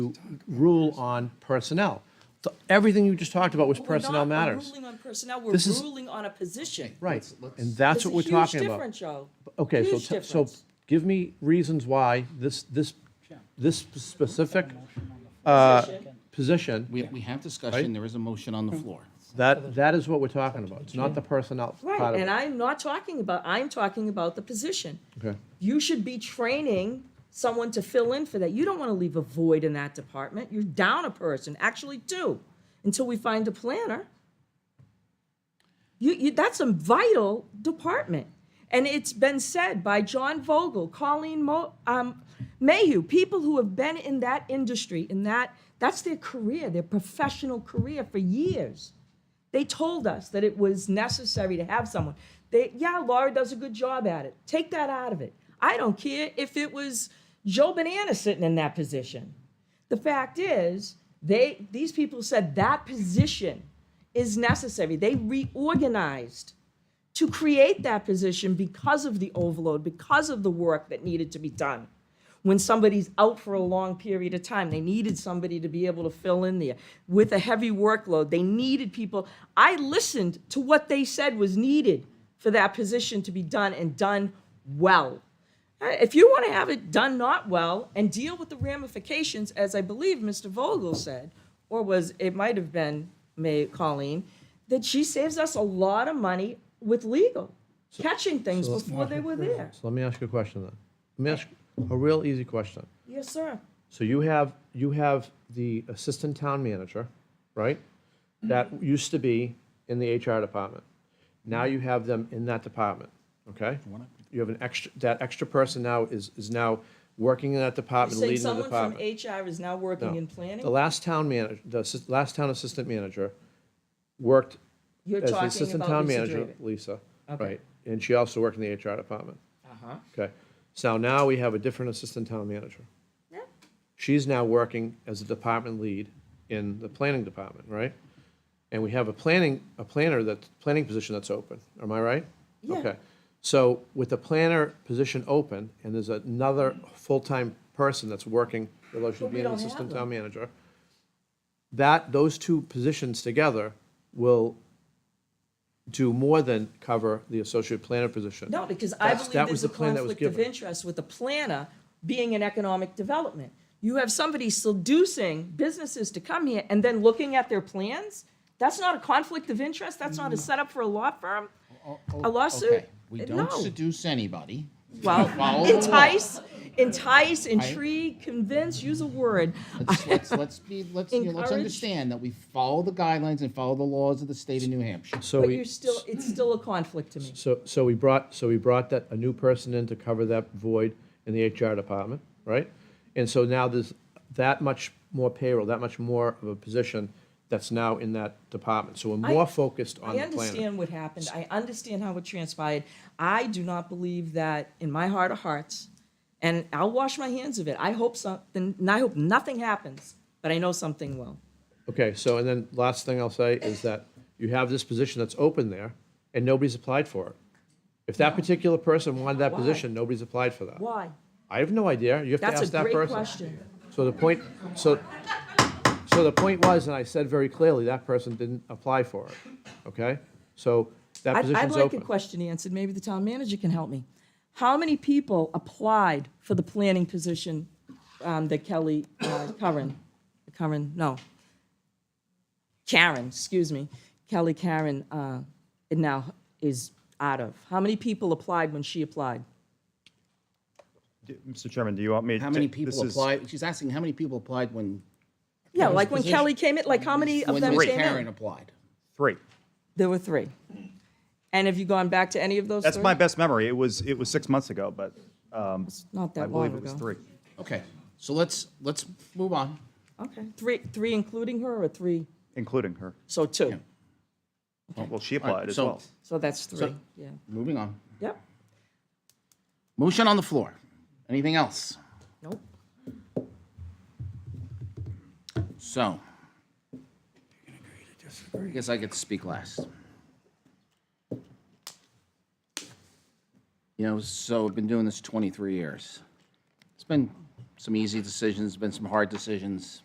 rule on personnel. So Everything you just talked about was We're personnel not matters. ruling on personnel, we're This is- ruling on a position. Right, and that's It's a what we're huge talking about. difference, Joe. Okay, so, Huge t- so difference. give me reasons why this, this, this specific uh, Position. position, We, we have discussion, there is a motion on the floor. that, that is what we're talking about. It's not the personnel part of Right, it. and I'm not talking about, I'm talking about the position. Okay. You should be training someone to fill in for that. You don't want to leave a void in that department. You're down a person, actually two, until we find a planner. You, you, that's a vital department. And it's been said by John Vogel, Colleen Mo, um, Mayhew, people who have been in that industry, in that, that's their career, their professional career for years. They told us that it was necessary to have someone. They, yeah, Laura does a good job at it. Take that out of it. I don't care if it was Joe Banana sitting in that position. The fact is, they these people said that position is necessary. They reorganized to create that position because of the overload, because of the work that needed to be done. When somebody's out for a long period of time, they needed somebody to be able to fill in there with a heavy workload. They needed people. I listened to what they said was needed for that position to be done and done well. Uh, If you want to have it done not well and deal with the ramifications, as I believe Mr. Vogel said, or was it might have been May Colleen, that she saves us a lot of money with legal, catching things before they were there. So let me ask you a question then. Let me ask you a real easy question. Yes, sir. So you have, you have the assistant town manager, right? Mm-hmm. That used to be in the HR department. Now you have them in that department, okay? You have an extra, that extra person now is, is now working in that You department, say leading the someone from department. HR is now working No. in planning? The last town manager, the assist- last town assistant manager worked You're as the talking assistant about town Lisa manager, Draven. Lisa, Okay. right? And she also worked in the HR department, Uh-huh. okay? So now we have a different assistant town manager. Yeah. She's now working as a department lead in the planning department, right? And we have a planning, a planner that, planning position that's open, am I right? Yeah. Okay. So with the planner position open, and there's another full-time person that's working, in relation But to we being an don't have assistant them. town manager, that, those two positions together will do more than cover the associate planner position. No, because I That's- believe that there's was a the plan that was conflict of given. interest with the planner being in economic development. You have somebody seducing businesses to come here and then looking at their plans? That's not a conflict of interest? That's Mm. not a setup for a law firm? A lawsuit? Oh, Okay, We Uh, No. don't seduce anybody. Well, Follow the law. entice, entice, intrigue, convince, use a word. Let's, let's, let's be, let's, you know, let's Encourage- understand that we follow the guidelines and follow the laws of the state of New Hampshire. So But we. you're still, it's still a conflict to me. So, so we brought, so we brought that, a new person in to cover that void in the HR department, right? And so now there's that much more payroll, that much more of a position that's now in that department. So we're more focused on I the planner. understand what happened. I understand how it transpired. I do not believe that in my heart of hearts, and I'll wash my hands of it. I hope something, and I hope nothing happens, but I know something will. Okay, so, and then last thing I'll say is that you have this position that's open there and nobody's applied for it. If that particular person wanted that Why? position, nobody's applied for that. Why? I have no idea. You have to That's a ask that great person. question. So the point, so, so the point was, and I said very clearly, that person didn't apply for it, okay? So that I'd, I'd position's like a open. question answered. Maybe the town manager can help me. How many people applied for the planning position um, that Kelly uh, Curran, Curran, no, Karen, excuse me, Kelly Karen uh, now is out of? How many people applied when she applied? Mr. Chairman, do you want me? How to- many this people is- applied, she's asking how many people applied when, Yeah, like when position- Kelly came in, like how many of when them Ms. came Karen in? applied. Three. There were three. And have you gone back to any of those That's three? my best memory. It was, it was six months ago, but um, Not I that long believe ago. it was three. Okay, so let's, let's move on. Okay, three, three including her or three, Including her. so two. Well, she All right, applied as so- well. So that's three, So- yeah. Moving on. Yep, Motion on the floor. Anything else? nope. So. I guess I get to speak last. You know, so I've been doing this 23 years. It's been some easy decisions, been some hard decisions.